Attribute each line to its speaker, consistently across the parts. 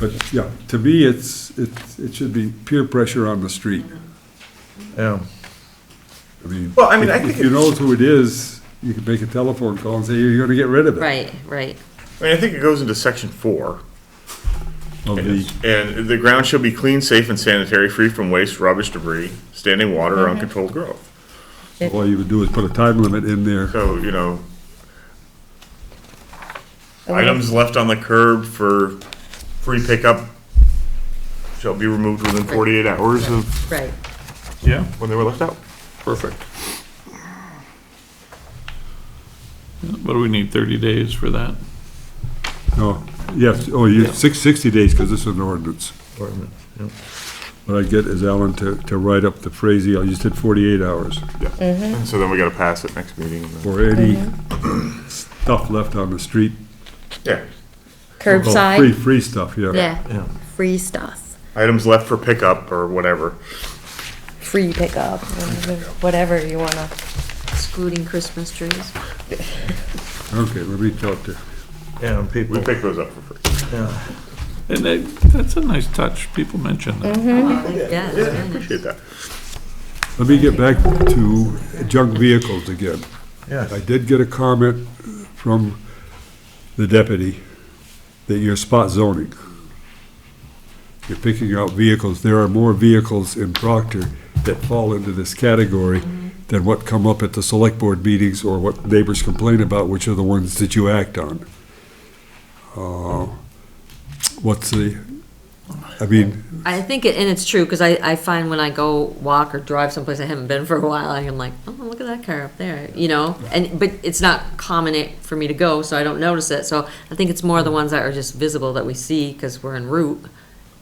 Speaker 1: But yeah, to me, it's, it's, it should be peer pressure on the street.
Speaker 2: Yeah.
Speaker 1: I mean.
Speaker 2: Well, I mean,
Speaker 1: if-
Speaker 2: I think
Speaker 1: If you
Speaker 2: it-
Speaker 1: know who it is, you can make a telephone call and say, you're gonna get rid of it.
Speaker 3: Right, right.
Speaker 2: I mean, I think it goes into section four.
Speaker 1: Of the-
Speaker 2: And the ground shall be clean, safe, and sanitary, free from waste, rubbish, debris, standing water, or uncontrolled growth.
Speaker 1: All you would do is put a time limit in there.
Speaker 2: So, you know, items left on the curb for free pickup shall be removed within forty-eight hours of
Speaker 3: Right.
Speaker 2: Yeah. when they were left out.
Speaker 4: Perfect. What do we need, 30 days for that?
Speaker 1: No, yes, oh, you, six, sixty days, because this is an ordinance. What I get is Alan to, to write up the phrase, I just did forty-eight hours,
Speaker 2: Yeah. And so then we gotta pass it next meeting. and then-
Speaker 1: for any
Speaker 3: Mm-hmm.
Speaker 1: stuff left on the street.
Speaker 2: Yeah.
Speaker 1: Free,
Speaker 3: Curbside,
Speaker 1: free stuff, yeah.
Speaker 3: yeah,
Speaker 4: Yeah.
Speaker 3: free stuff,
Speaker 2: Items left for pickup or whatever.
Speaker 5: free pickup, whatever- whatever you wanna.
Speaker 3: excluding Christmas trees.
Speaker 1: Okay, let me talk to,
Speaker 2: Yeah, and people. We pick those up for free.
Speaker 4: And they- that's a nice touch, people mention
Speaker 1: Mm-hmm.
Speaker 4: that.
Speaker 3: Yeah, that's very nice.
Speaker 2: Appreciate that.
Speaker 1: let me get back to junk vehicles again. I
Speaker 2: Yeah.
Speaker 1: did get a comment from the deputy that you're spot zoning. You're picking out vehicles. There are more vehicles in Proctor that fall into this category than what come up at the select board meetings or what neighbors complain about, which are the ones that you act on. Uh, What's the, I mean,
Speaker 3: I think, it and it's true, because I, I find when I go walk or drive someplace I haven't been for a while, I'm like, oh, look at that car up there, you know? And, but it's not common it- for me to go, so I don't notice it, so I think it's more the ones that are just visible that we see, because we're en route,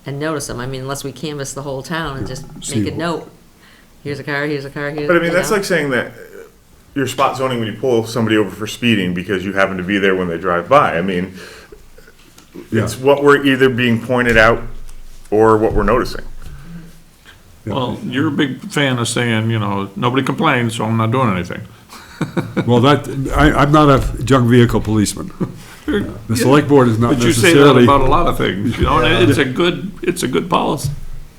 Speaker 3: and notice them, I mean, unless we canvas the whole town and just
Speaker 1: See
Speaker 3: make a
Speaker 1: wh-
Speaker 3: note. Here's a car, here's a car, here's.
Speaker 2: But I
Speaker 3: you
Speaker 2: mean, that's
Speaker 3: know?
Speaker 2: like saying that uh, you're spot zoning when you pull somebody over for speeding because you happen to be there when they drive by. I mean,
Speaker 1: yeah,
Speaker 2: it's what we're either being pointed out or what we're noticing.
Speaker 4: Well, you're a big fan of saying, you know, nobody complains, so I'm not doing anything.
Speaker 1: well, that, I, I'm not a junk vehicle policeman. The select board is not
Speaker 4: But you say that
Speaker 1: necessarily,
Speaker 4: about a lot of things, you know, and it's a good, it's a good policy.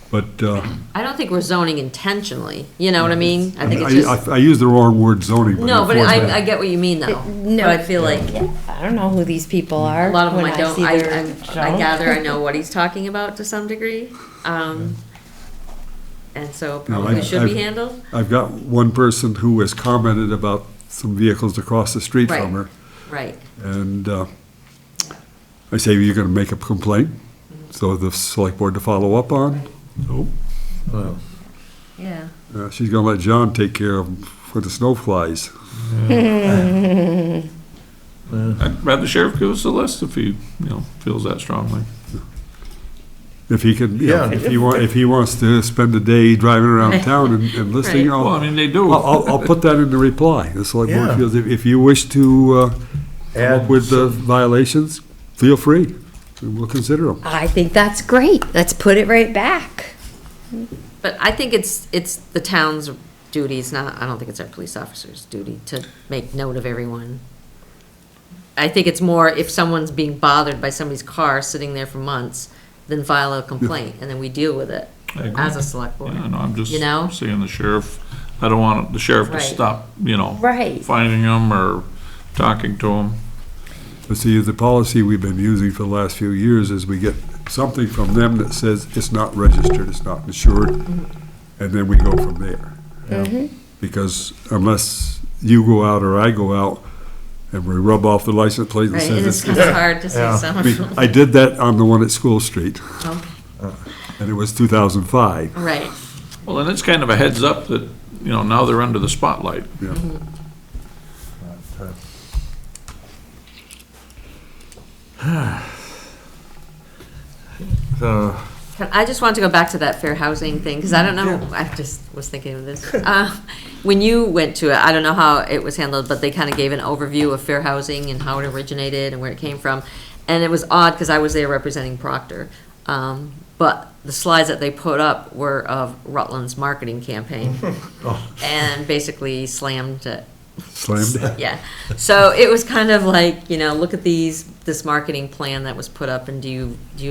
Speaker 1: but, uh,
Speaker 3: I don't think we're zoning intentionally, you know what I mean? I think it's
Speaker 1: I,
Speaker 3: just,
Speaker 1: I, I use the wrong word zoning, but.
Speaker 3: no, but
Speaker 1: therefore
Speaker 3: I, I
Speaker 1: that-
Speaker 3: get what you mean though.
Speaker 5: No.
Speaker 3: But I feel like
Speaker 5: Yeah, I don't know who these people are.
Speaker 3: a lot of them
Speaker 5: when
Speaker 3: I don't,
Speaker 5: see
Speaker 3: I,
Speaker 5: their
Speaker 3: I- I
Speaker 5: junk.
Speaker 3: gather I know what he's talking about to some degree. Um, and so it
Speaker 1: No,
Speaker 3: probably
Speaker 1: I've-
Speaker 3: should be
Speaker 1: I've-
Speaker 3: handled.
Speaker 1: I've got one person who has commented about some vehicles across the street from
Speaker 3: Right.
Speaker 1: her,
Speaker 3: Right,
Speaker 1: and, uh, I say, you're gonna make a complaint, so the select board to follow up on. Nope.
Speaker 3: yeah.
Speaker 1: Uh, she's gonna let John take care of them for the snow flies.
Speaker 4: I'd rather sheriff give us a list if he, you know, feels that strongly.
Speaker 1: If he can, you know,
Speaker 2: Yeah.
Speaker 1: if he wa, if he wants to spend a day driving around town and, and listening,
Speaker 3: Right.
Speaker 4: Well, I
Speaker 1: I'll,
Speaker 4: mean, they do.
Speaker 1: I'll, I'll- I'll put that in the reply. The select board
Speaker 2: Yeah.
Speaker 1: feels, if, if you wish to, uh, come up with the violations, feel free. We'll consider them.
Speaker 5: I think that's great. Let's put it right back.
Speaker 3: But I think it's, it's the town's duty, it's not, I don't think it's our police officer's duty to make note of everyone. I think it's more if someone's being bothered by somebody's car sitting there for months, then file a complaint, and then we deal with it
Speaker 4: I agree.
Speaker 3: as a select board.
Speaker 4: Yeah, no, I'm just
Speaker 3: You know?
Speaker 4: saying the sheriff, I don't want the sheriff to
Speaker 3: Right.
Speaker 4: stop, you know,
Speaker 5: Right.
Speaker 4: finding them or talking to them.
Speaker 1: But see, the policy we've been using for the last few years is we get something from them that says it's not registered, it's not insured, and then we go from there. Because unless you go out or I go out and we rub off the license plate and
Speaker 3: Right, and it's
Speaker 1: says
Speaker 3: kind of hard to say
Speaker 1: it's,
Speaker 3: something.
Speaker 1: I did that on the one at School Street,
Speaker 3: Oh.
Speaker 1: and it was two thousand five.
Speaker 3: Right,
Speaker 4: Well, and it's kind of a heads up that, you know, now they're under the spotlight.
Speaker 2: So,
Speaker 3: Can- I just want to go back to that fair housing thing, because I don't know, I just was thinking of this. Uh, When you went to it, I don't know how it was handled, but they kind of gave an overview of fair housing and how it originated and where it came from. And it was odd, because I was there representing Proctor. Um, But the slides that they put up were of Rutland's marketing campaign. And basically slammed it
Speaker 1: Slammed.
Speaker 3: yeah. So it was kind of like, you know, look at these, this marketing plan that was put up and do you, do you